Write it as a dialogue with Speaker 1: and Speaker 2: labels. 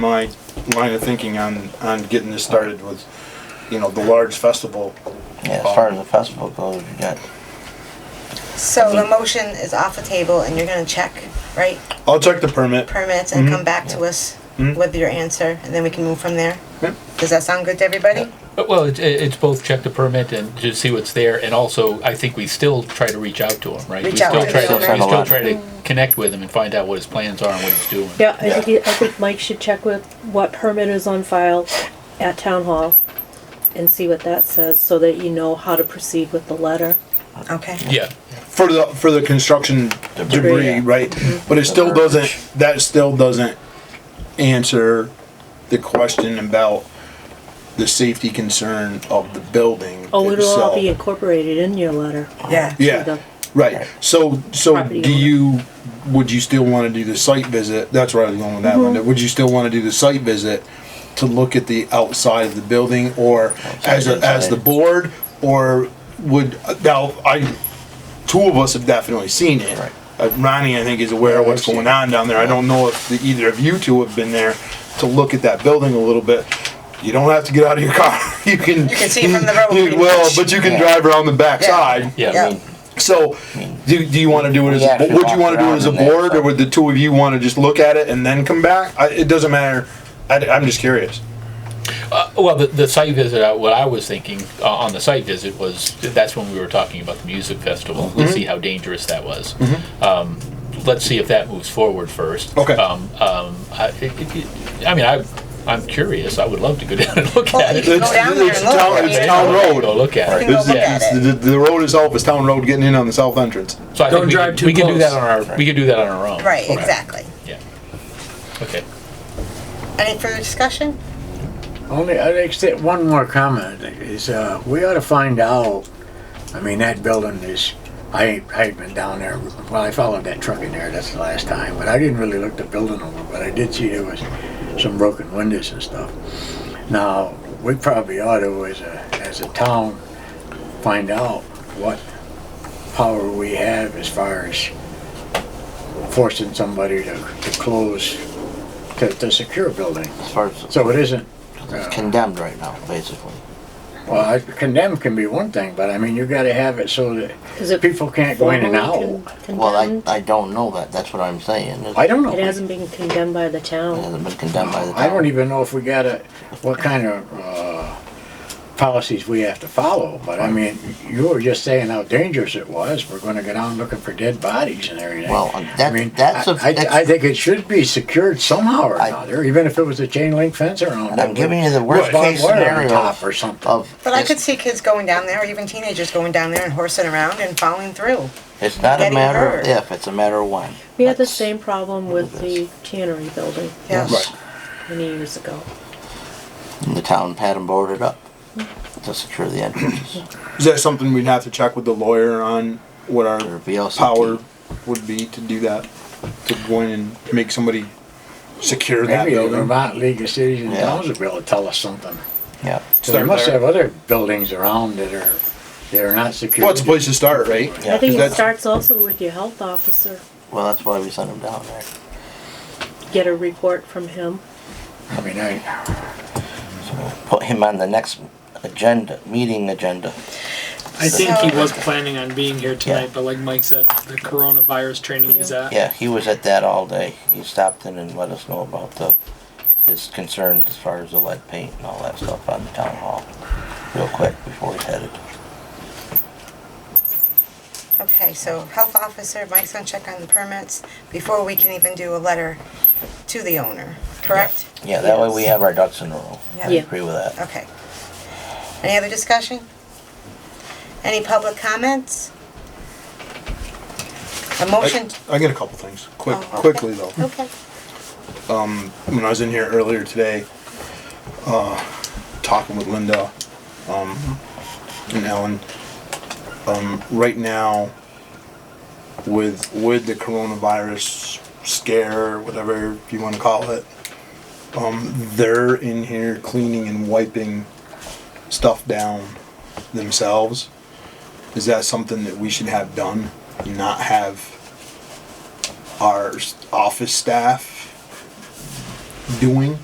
Speaker 1: my line of thinking on, on getting this started with, you know, the large festival.
Speaker 2: Yeah, as far as the festival goes, you got,
Speaker 3: So the motion is off the table and you're gonna check, right,
Speaker 1: I'll check the permit.
Speaker 3: permits
Speaker 4: Mm-hmm.
Speaker 3: and come back to us
Speaker 1: Mhm.
Speaker 3: with your answer and then we can move from there?
Speaker 1: Yep.
Speaker 3: Does that sound good to everybody?
Speaker 5: But, Well, it's, it- it's both check the permit and to see what's there, and also, I think we still try to reach out to him, right? We
Speaker 3: Reach out
Speaker 5: still
Speaker 3: to
Speaker 5: try
Speaker 3: the
Speaker 5: to-
Speaker 2: owner.
Speaker 5: We still try to connect with him and find out what his plans are and what he's doing.
Speaker 6: Yeah, I think, he- I think Mike should check with what permit is on file at town hall and see what that says, so that you know how to proceed with the letter.
Speaker 3: Okay.
Speaker 5: Yeah,
Speaker 1: For the, for the construction debris,
Speaker 2: yeah.
Speaker 1: right?
Speaker 6: Mm-hmm.
Speaker 1: But it still doesn't, that still doesn't answer the question about the safety concern of the building
Speaker 6: Oh, it'll all be
Speaker 1: itself.
Speaker 6: incorporated in your letter.
Speaker 3: Yeah.
Speaker 1: Yeah,
Speaker 6: the-
Speaker 1: right. So, so
Speaker 6: Property
Speaker 1: do
Speaker 6: owner.
Speaker 1: you, would you still wanna do the site visit? That's where I was going with that
Speaker 3: Mm-hmm.
Speaker 1: one. Would you still wanna do the site visit to look at the outside of the building or as, a- as the
Speaker 2: inside.
Speaker 1: board? Or would, now, I, two of us have definitely seen it.
Speaker 2: Right.
Speaker 1: Uh, Ronnie, I think, is aware of what's
Speaker 2: I've seen
Speaker 1: going on down there. I don't know if the, either of you two have been there to look at that building a little bit. You don't have to get out of your car. You can.
Speaker 3: You can see from the road
Speaker 1: you-
Speaker 3: pretty
Speaker 1: Well,
Speaker 3: much.
Speaker 1: but you can
Speaker 2: Yeah.
Speaker 1: drive around the backside.
Speaker 5: Yeah.
Speaker 2: I mean,
Speaker 1: So, do, do you want to do it as,
Speaker 2: We
Speaker 1: a
Speaker 2: actually
Speaker 1: bo- would you
Speaker 2: walked
Speaker 1: want to do it
Speaker 2: around
Speaker 1: as a
Speaker 2: in there,
Speaker 1: board, or
Speaker 2: so-
Speaker 1: would the two of you want to just look at it and then come back? I, it doesn't matter. I, am just curious.
Speaker 5: Uh, well, the, the site visit, uh, what I was thinking uh, on the site visit was, that's when we were talking about the music festival, to see how dangerous that was. Um, Let's see if that moves forward first.
Speaker 1: Okay.
Speaker 5: Um, um, I, it- it- it- I mean, I, I'm curious, I would love to go down and look
Speaker 3: Well,
Speaker 5: at
Speaker 3: you
Speaker 5: it.
Speaker 3: can
Speaker 1: It's-
Speaker 3: go down there
Speaker 1: it's
Speaker 3: and look.
Speaker 1: town-
Speaker 3: I
Speaker 1: it's
Speaker 3: mean,
Speaker 1: town road.
Speaker 5: Go look at
Speaker 3: You
Speaker 5: it.
Speaker 3: can go look
Speaker 5: Yeah.
Speaker 3: at it.
Speaker 1: The, the road itself is town road getting in on the south entrance.
Speaker 5: So I think
Speaker 7: Don't
Speaker 5: we
Speaker 7: drive
Speaker 5: could-
Speaker 7: too
Speaker 5: We can do that
Speaker 7: close.
Speaker 5: on our, we can do that on our own.
Speaker 3: Right, exactly.
Speaker 5: Yeah. Okay.
Speaker 3: Any further discussion?
Speaker 7: Only, I'd accept one more comment is, uh, we ought to find out, I mean, that building is, I, I had been down there, well, I followed that truck in there, that's the last time, but I didn't really look the building over, but I did see there was some broken windows and stuff. Now, we probably ought to, as a, as a town, find out what power we have as far as forcing somebody to, to close, to, to secure a building.
Speaker 2: as far as
Speaker 7: So it isn't
Speaker 2: it's condemned right now, basically.
Speaker 7: Well, I- condemn can be one thing, but I mean, you gotta have it so that
Speaker 6: Is it
Speaker 7: people can't go in and
Speaker 6: formally
Speaker 7: out.
Speaker 6: con-
Speaker 2: Well, I,
Speaker 6: condemned?
Speaker 2: I don't know that, that's what I'm saying. It
Speaker 7: I don't know.
Speaker 6: It hasn't been condemned by the town.
Speaker 2: hasn't been condemned by the town.
Speaker 7: I don't even know if we gotta, what kind of, uh, policies we have to follow, but I mean, you were just saying how dangerous it was. We're gonna go down looking for dead bodies and everything.
Speaker 2: Well, uh, that-
Speaker 7: I mean,
Speaker 2: that's a-
Speaker 7: I- I-
Speaker 2: that's-
Speaker 7: I think it should be secured somehow or
Speaker 2: I-
Speaker 7: another, even if it was a chain link fence around.
Speaker 2: I'm
Speaker 7: it,
Speaker 2: giving you the
Speaker 7: with
Speaker 2: worst case
Speaker 7: barbed wire on
Speaker 2: scenario
Speaker 7: top Or something.
Speaker 2: Of,
Speaker 3: But I
Speaker 2: it's-
Speaker 3: could see kids going down there, or even teenagers going down there and horsing around and following through.
Speaker 2: It's not a
Speaker 3: getting
Speaker 2: matter
Speaker 3: hurt.
Speaker 2: of if, it's a matter of when.
Speaker 6: We had the
Speaker 2: That's-
Speaker 6: same problem with the tannery building
Speaker 3: Yeah.
Speaker 2: Yes.
Speaker 6: many years ago.
Speaker 2: And The town had them boarded up to secure the entrances.
Speaker 1: Is that something we'd have to check with the lawyer on what
Speaker 2: Or
Speaker 1: our
Speaker 2: VLCT.
Speaker 1: power would be to do that? To go in and make somebody secure that
Speaker 7: Maybe the
Speaker 1: building?
Speaker 7: Vermont League of Cities and
Speaker 2: Yeah.
Speaker 7: Towns would be able to tell us something.
Speaker 2: Yeah,
Speaker 7: So they
Speaker 1: Start
Speaker 7: must
Speaker 1: there.
Speaker 7: have other buildings around that are, that are not secure.
Speaker 1: Well, it's a place to start, right?
Speaker 2: Yeah,
Speaker 6: I think it
Speaker 1: that's-
Speaker 6: starts also with your health officer.
Speaker 2: well, that's why we sent them down there.
Speaker 6: Get a report from him.
Speaker 7: I mean, I,
Speaker 2: Put him on the next agenda, meeting agenda.
Speaker 4: I think
Speaker 3: So-
Speaker 4: he was planning on being here tonight,
Speaker 2: Yeah.
Speaker 4: but like Mike said, the coronavirus training he's at.
Speaker 2: Yeah, he was at that all day. He stopped in and let us know about the, his concerns as far as the lead paint and all that stuff on the town hall, real quick before he headed.
Speaker 3: Okay, so health officer, Mike's gonna check on the permits before we can even do a letter to the owner, correct?
Speaker 2: Yeah, that way we have our ducks in a row.
Speaker 3: Yeah.
Speaker 2: I
Speaker 6: Yeah.
Speaker 2: agree with that.
Speaker 3: Okay. Any other discussion? Any public comments? A motion?
Speaker 1: I got a couple things, quick,
Speaker 3: Oh, okay.
Speaker 1: quickly though.
Speaker 3: Okay.
Speaker 1: when I was in here earlier today, uh, talking with Linda, um, and Ellen, um, right now, with, with the coronavirus scare, whatever you wanna call it, um, they're in here cleaning and wiping stuff down themselves. Is that something that we should have done? Not have our s- office staff doing?